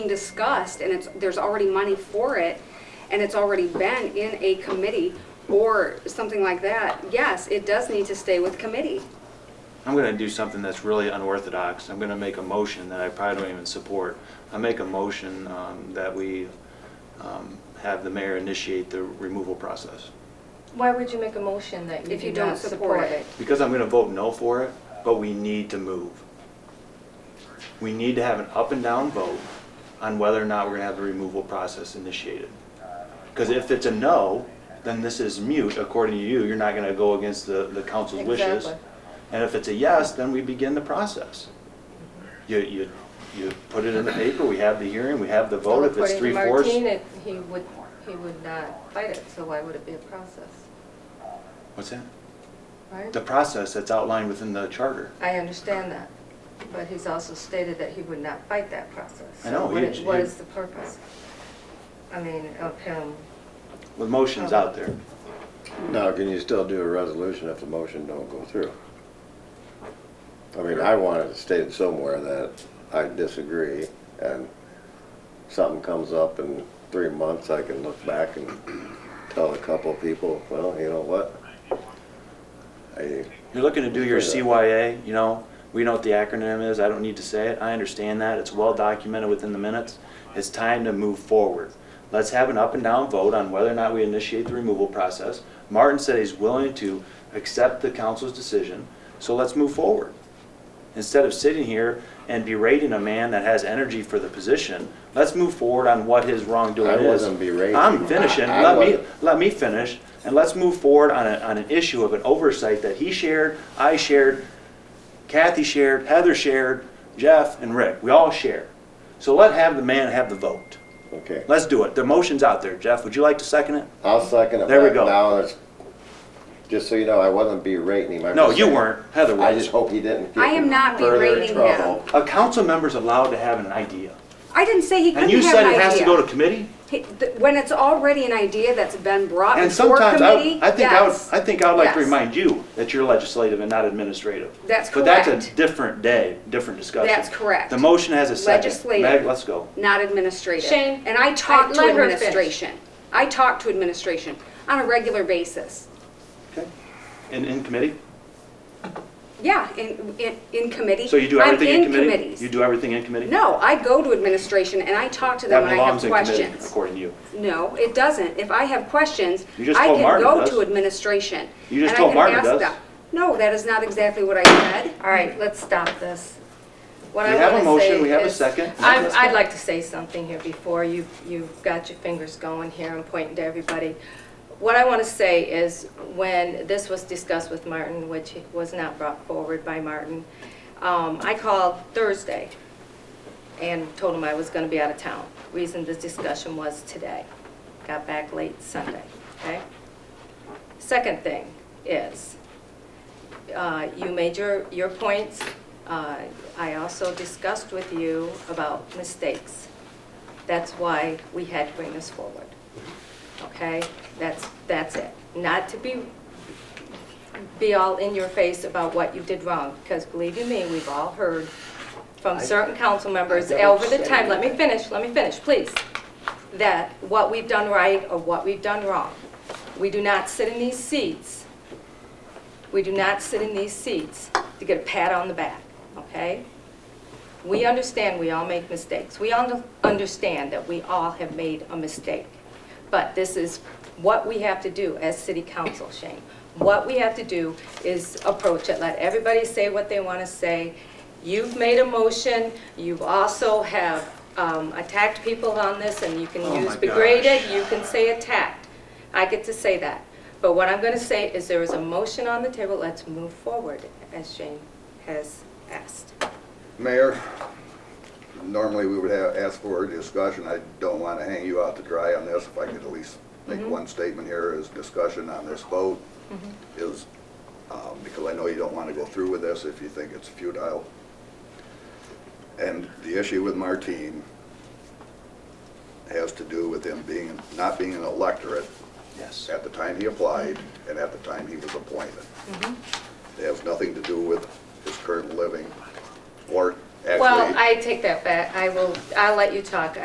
discussed and it's, there's already money for it and it's already been in a committee or something like that, yes, it does need to stay with committee. I'm going to do something that's really unorthodox. I'm going to make a motion that I probably don't even support. I make a motion um, that we um, have the mayor initiate the removal process. Why would you make a motion that you If you do don't not support support it. it? Because I'm going to vote no for it, but we need to move. We need to have an up and down vote on whether or not we're going to have the removal process initiated. Because if it's a no, then this is mute, according to you. You're not going to go against the, the council's wishes. Exactly. And if it's a yes, then we begin the process. You, you, you put it in the paper, we have the hearing, we have the vote. If it's three fourths, According to Martine, it- he would, he would not fight it, so why would it be a process, what's that? right? The process that's outlined within the charter. I understand that, but he's also stated that he would not fight that process. I know, So what he- is- What he- is the purpose? I mean, of him, The motion's out there. Now, can you still do a resolution if the motion don't go through? I mean, I wanted to state it somewhere that I disagree, and something comes up in three months, I can look back and tell a couple people, well, you know what? I, You're looking to do your CYA, you know, we know what the acronym is, I don't need to say it, I understand that, it's well documented within the minutes. It's time to move forward. Let's have an up and down vote on whether or not we initiate the removal process. Martin said he's willing to accept the council's decision, so let's move forward. Instead of sitting here and berating a man that has energy for the position, let's move forward on what his wrongdoing I is. wasn't berating. I'm finishing, I- I let me, wasn't. let me finish, and let's move forward on, a, on an issue of an oversight that he shared, I shared, Kathy shared, Heather shared, Jeff and Rick, we all share. So let have the man have the vote. okay, Let's do it. The motion's out there. Jeff, would you like to second it? I'll second it There we back go. now, and it's, just so you know, I wasn't berating him. I'm No, just you saying- weren't. Heather I was. just hope he didn't I get am in not further berating him. trouble. A council member's allowed to have an idea. I didn't say he couldn't have an And you idea. said it has to go to committee? He- th- When it's already an idea that's been brought And before sometimes, I, committee, I think I would, yes. I think I would like to Yes. remind you that you're legislative and not administrative. That's But that's a correct. different day, different discussion. That's correct. The motion has a second. Legislative. Meg, let's go. Not administrative. Shane, And I talk I- to let her finish. administration. I talk to administration on a regular basis. Okay. In, in committee? Yeah, in, in, in committee. So you do everything in committee? I'm in committees. You do everything in committee? No, I go to administration and I talk to them That when I have belongs in committee, questions. according to you. No, it doesn't. If I have questions, You just I told can Martin it go does. to administration. You just and I told can Martin it ask does. them. No, that is not exactly what I said. all right, let's stop this. What We I have a wanna motion, say we have a is- second. I'm- Let's I'd go. like to say something here before you, you've got your fingers going here and pointing to everybody. What I want to say is, when this was discussed with Martin, which was not brought forward by Martin, um, I called Thursday and told him I was going to be out of town. Reason this discussion was today. Got back late Sunday, okay? Second thing is, uh, you made your, your points. Uh, I also discussed with you about mistakes. That's why we had to bring this forward. Okay? That's, that's it. Not to be, be all in your face about what you did wrong, because believe you me, we've all heard from certain council members over the time, let me finish, let me finish, please, that what we've done right or what we've done wrong. We do not sit in these seats we do not sit in these seats to get a pat on the back, okay? We understand we all make mistakes. We all understand that we all have made a mistake. But this is what we have to do as city council, Shane. What we have to do is approach it, let everybody say what they want to say. You've made a motion, you also have um, attacked people on this, and you can Oh, my use gosh. degraded, you can say attacked. I get to say that. But what I'm going to say is there is a motion on the table, let's move forward, as Shane has asked. Mayor, normally we would have, ask for a discussion. I don't want to hang you out to dry on this. If I could at least make one statement here is discussion on this vote is, um, because I know you don't want to go through with this if you think it's futile. And the issue with Martine has to do with him being, not being an electorate Yes. at the time he applied and at the time he was appointed. It has nothing to do with his current living or actually. Well, I take that back. I will, I'll let you talk.